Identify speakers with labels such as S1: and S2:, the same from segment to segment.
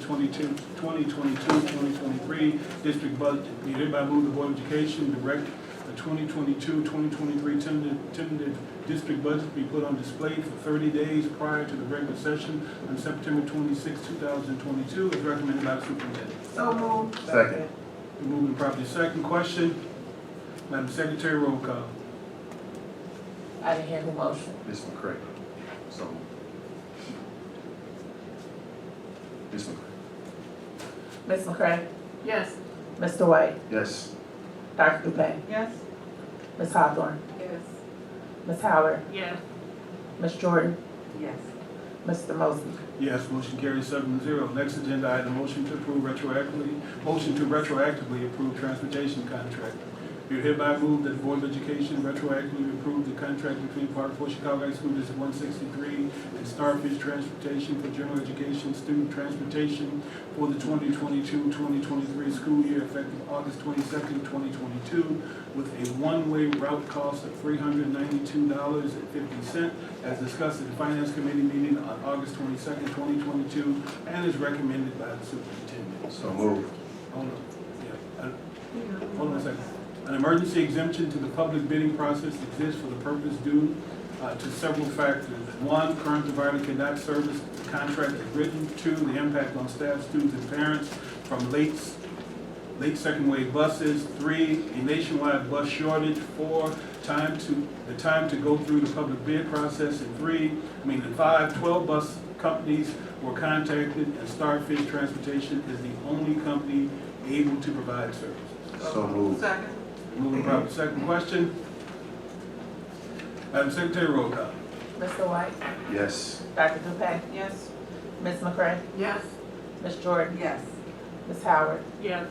S1: 2022, 2023 district budget. Be hereby move the Board of Education direct the 2022-2023 tentative- tentative district budget be put on display for 30 days prior to the regular session on September 26, 2022, as recommended by the superintendent.
S2: So moved.
S3: Second.
S1: Been moved and properly second. Question? Madam Secretary, roll call.
S2: I didn't hear the motion.
S3: Ms. McCray. So. Ms. McCray.
S2: Ms. McCray?
S4: Yes.
S2: Mr. White?
S3: Yes.
S2: Dr. Dupay?
S4: Yes.
S2: Ms. Hawthorne?
S4: Yes.
S2: Ms. Howard?
S4: Yes.
S2: Ms. Jordan?
S4: Yes.
S2: Mr. Mosley?
S1: Yes, motion carries seven zero. Next agenda item, motion to approve retroactively, motion to retroactively approve transportation contract. Be hereby moved that the Board of Education retroactively approve the contract between Park Forest Chicago High School District one sixty-three and Starfish Transportation for General Education Student Transportation for the 2022-2023 school year effective August twenty-second, twenty twenty-two, with a one-way route cost of three hundred ninety-two dollars and fifty cent as discussed at the Finance Committee meeting on August twenty-second, twenty twenty-two, and is recommended by the superintendent.
S3: So moved.
S1: Hold on, yeah, uh, hold on a second. An emergency exemption to the public bidding process exists for the purpose due uh, to several factors. One, current provider cannot service the contract as written. Two, the impact on staff, students, and parents from late, late second wave buses. Three, a nationwide bus shortage. Four, time to, the time to go through the public bid process. And three, I mean, and five, 12 bus companies were contacted, and Starfish Transportation is the only company able to provide service.
S3: So moved.
S4: Second.
S1: Moving properly. Second question. Madam Secretary, roll call.
S2: Mr. White?
S3: Yes.
S2: Dr. Dupay?
S4: Yes.
S2: Ms. McCray?
S4: Yes.
S2: Ms. Jordan?
S4: Yes.
S2: Ms. Howard?
S4: Yes.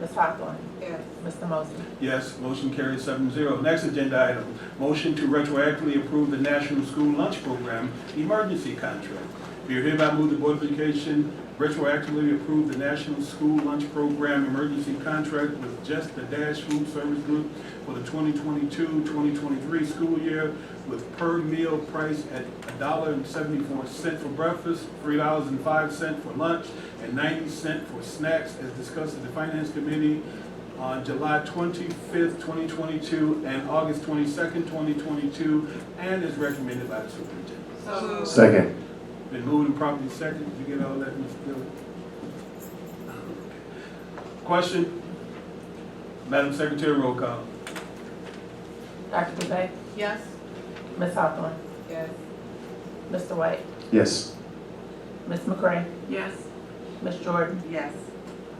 S2: Ms. Hawthorne?
S4: Yes.
S2: Mr. Mosley?
S1: Yes, motion carries seven zero. Next agenda item, motion to retroactively approve the National School Lunch Program Emergency Contract. Be it hereby moved the Board of Education retroactively approve the National School Lunch Program Emergency Contract with Just the Dash Food Service Group for the 2022-2023 school year with per meal price at $1.74 for breakfast, $3.05 for lunch, and 90 cent for snacks as discussed at the Finance Committee on July 25th, 2022, and August 22nd, 2022, and is recommended by the superintendent.
S4: So moved.
S3: Second.
S1: Been moved and properly second. Did you get all that, Ms. Dillon? Question? Madam Secretary, roll call.
S2: Dr. Dupay?
S4: Yes.
S2: Ms. Hawthorne?
S4: Yes.
S2: Mr. White?
S3: Yes.
S2: Ms. McCray?
S4: Yes.
S2: Ms. Jordan?
S4: Yes.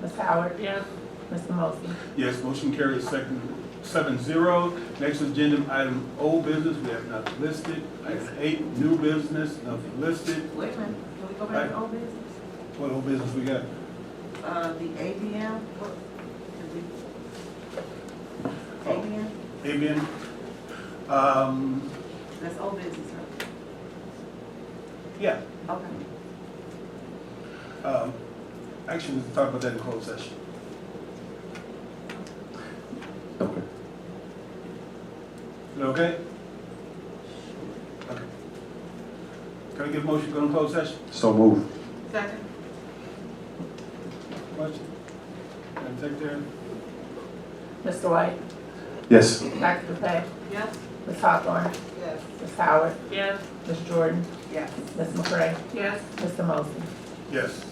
S2: Ms. Howard?
S4: Yes.
S2: Mr. Mosley?
S1: Yes, motion carries second, seven zero. Next agenda item, old business, we have nothing listed. Item eight, new business, nothing listed.
S4: Wait a minute, can we go back to old business?
S1: What old business we got?
S4: Uh, the ABM? what- did we-
S3: Oh.
S4: ABM,
S1: Amen. Um,
S4: that's old business, right?
S1: yeah,
S4: Okay.
S1: Um, Actually, we can talk about that in closed session.
S3: Okay.
S1: Is that okay? Okay. Can I get a motion to go in closed session?
S3: So moved.
S4: Second.
S1: Question? Madam Secretary?
S2: Mr. White?
S3: Yes.
S2: Dr. Dupay?
S4: Yes.
S2: Ms. Hawthorne?
S4: Yes.
S2: Ms. Howard?
S4: Yes.
S2: Ms. Jordan?
S4: Yes.
S2: Ms. McCray?
S4: Yes.
S2: Mr. Mosley?
S1: Yes.